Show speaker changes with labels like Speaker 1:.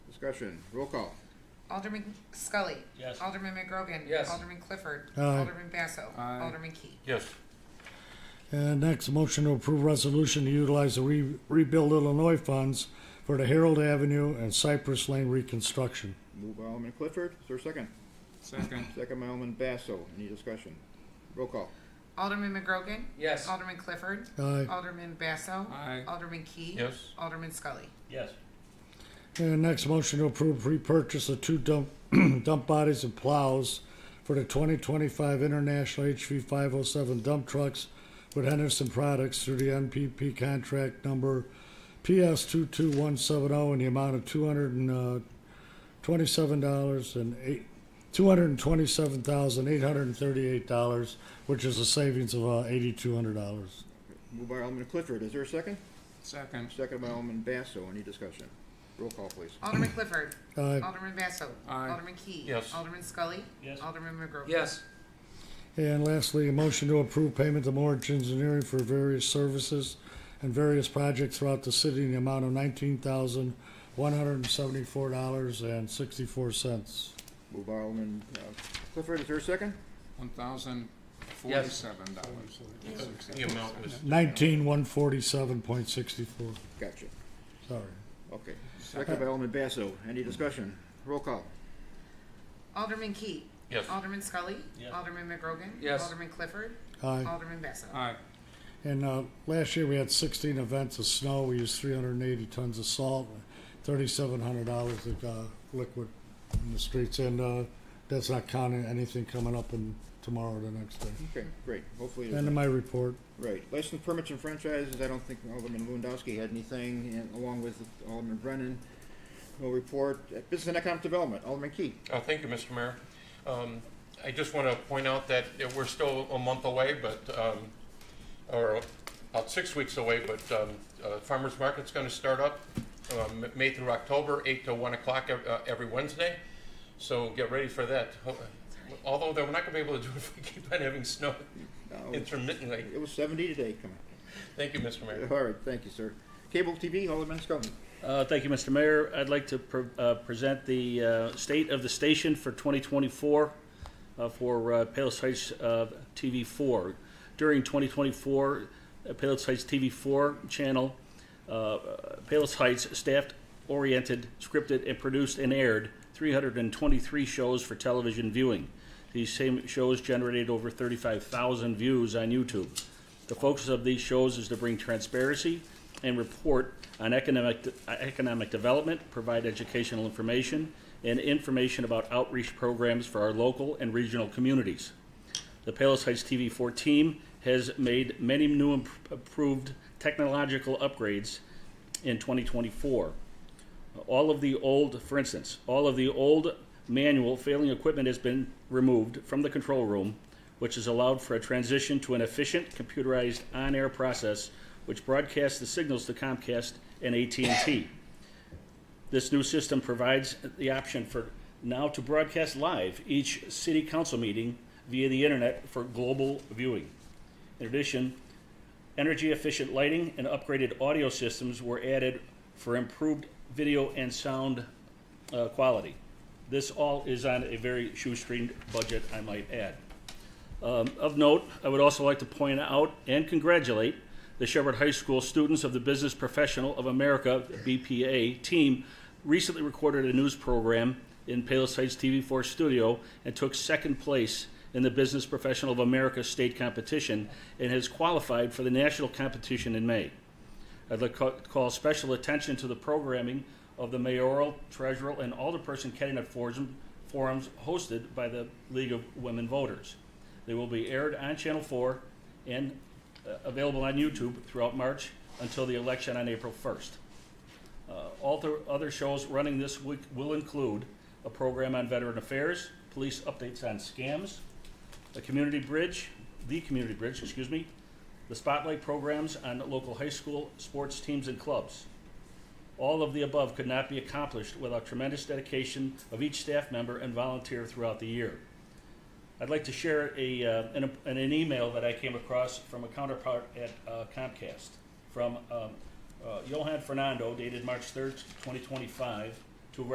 Speaker 1: Discussion, roll call.
Speaker 2: Alderman Scully.
Speaker 3: Yes.
Speaker 2: Alderman McGrogan.
Speaker 3: Yes.
Speaker 2: Alderman Clifford.
Speaker 4: Aye.
Speaker 2: Alderman Basso.
Speaker 1: Aye.
Speaker 2: Alderman Key.
Speaker 3: Yes.
Speaker 4: And next, motion to approve resolution to utilize the Re- Rebuild Illinois funds for the Harold Avenue and Cypress Lane reconstruction.
Speaker 1: Move by Alderman Clifford, is there a second?
Speaker 5: Second.
Speaker 1: Second by Alderman Basso, any discussion? Roll call.
Speaker 2: Alderman McGrogan.
Speaker 3: Yes.
Speaker 2: Alderman Clifford.
Speaker 4: Aye.
Speaker 2: Alderman Basso.
Speaker 5: Aye.
Speaker 2: Alderman Key.
Speaker 3: Yes.
Speaker 2: Alderman Scully.
Speaker 3: Yes.
Speaker 4: And next, motion to approve repurchase of two dump, dump bodies and plows for the twenty twenty-five International HV five oh seven dump trucks with Henderson Products through the NPP contract number PS two two one seven oh in the amount of two hundred and uh, twenty-seven dollars and eight, two hundred and twenty-seven thousand eight hundred and thirty-eight dollars, which is a savings of uh, eighty-two hundred dollars.
Speaker 1: Move by Alderman Clifford, is there a second?
Speaker 5: Second.
Speaker 1: Second by Alderman Basso, any discussion? Roll call, please.
Speaker 2: Alderman Clifford.
Speaker 4: Aye.
Speaker 2: Alderman Basso.
Speaker 5: Aye.
Speaker 2: Alderman Key.
Speaker 3: Yes.
Speaker 2: Alderman Scully.
Speaker 3: Yes.
Speaker 2: Alderman McGrogan.
Speaker 5: Yes.
Speaker 4: And lastly, a motion to approve payment to Morich Engineering for various services and various projects throughout the city in the amount of nineteen thousand, one hundred and seventy-four dollars and sixty-four cents.
Speaker 1: Move by Alderman uh, Clifford, is there a second?
Speaker 5: One thousand forty-seven dollars.
Speaker 3: The amount was,
Speaker 4: Mm-hmm. Nineteen, one forty-seven point sixty-four,
Speaker 1: Gotcha,
Speaker 4: sorry.
Speaker 1: okay. Second by Alderman Basso, any discussion? Roll call.
Speaker 2: Alderman Key.
Speaker 3: yes.
Speaker 2: Alderman Scully.
Speaker 3: Yes.
Speaker 2: Alderman McGrogan.
Speaker 5: Yes.
Speaker 2: Alderman Clifford.
Speaker 4: Aye.
Speaker 2: Alderman Basso.
Speaker 5: Aye.
Speaker 4: And, uh, last year we had sixteen events of snow. We used three hundred and eighty tons of salt, thirty-seven hundred dollars of, uh, liquid in the streets. And, uh, that's not counting anything coming up in tomorrow or the next day.
Speaker 1: Okay, great, hopefully. there's
Speaker 4: End of my report.
Speaker 1: Right, license permits and franchises, I don't think Alderman Lewandowski had anything, and along with Alderman Brennan, no report. Uh, Business and Economic Development, Alderman Key.
Speaker 6: Uh, Thank you, Mr. Mayor. Um, I just want to point out that uh, we're still a month away, but, um, or about six weeks away, but um, uh, farmer's market's going to start up um, May through October, 8 to 1 o'clock ev- uh, every Wednesday. So get ready for that. Ho- Although, though, we're not going to be able to do it if we keep on having snow
Speaker 1: Uh,
Speaker 6: intermittently.
Speaker 1: It was seventy today, come
Speaker 6: Thank you, Mr. Mayor.
Speaker 1: on. All right, thank you, sir. Cable TV, Alderman Scully.
Speaker 7: Uh, Thank you, Mr. Mayor. I'd like to pre- uh, present the uh, state of the station for 2024 uh, for uh, Palos Heights uh, TV4. During 2024, uh, Palos Heights TV4 channel, uh, Palos Heights staff-oriented, scripted, and produced and aired 323 shows for television viewing. These same shows generated over 35,000 views on YouTube. The focus of these shows is to bring transparency and report on economic, economic development, provide educational information, and information about outreach programs for our local and regional communities. The Palos Heights TV4 team has made many new and improved technological upgrades in 2024. All of the old, for instance, all of the old manual failing equipment has been removed from the control room, which has allowed for a transition to an efficient computerized on-air process which broadcasts the signals to Comcast and AT&T. This new system provides the option for now to broadcast live each city council meeting via the internet for global viewing. In addition, Energy efficient lighting and upgraded audio systems were added for improved video and sound uh, quality. This all is on a very shoestring budget, I might add. Um, of note, I would also like to point out and congratulate the Shepherd High School students of the Business Professional of America (BPA) team. Recently recorded a news program in Palos Heights TV4 studio and took second place in the Business Professional of America state competition and has qualified for the national competition in May. I'd like to call special attention to the programming of the mayoral, treasurer, and alderperson candidate forum- forums hosted by the League of Women Voters. They will be aired on Channel 4 and uh, available on YouTube throughout March until the election on April 1st. Uh, All the other shows running this week will include a program on veteran affairs, police updates on scams, the community bridge, the community bridge, excuse me, the spotlight programs on local high school sports teams and clubs. All of the above could not be accomplished without tremendous dedication of each staff member and volunteer throughout the year. I'd like to share a, uh, an, an email that I came across from a counterpart at uh, Comcast from um, uh, Johan Fernando, dated March 3rd, 2025,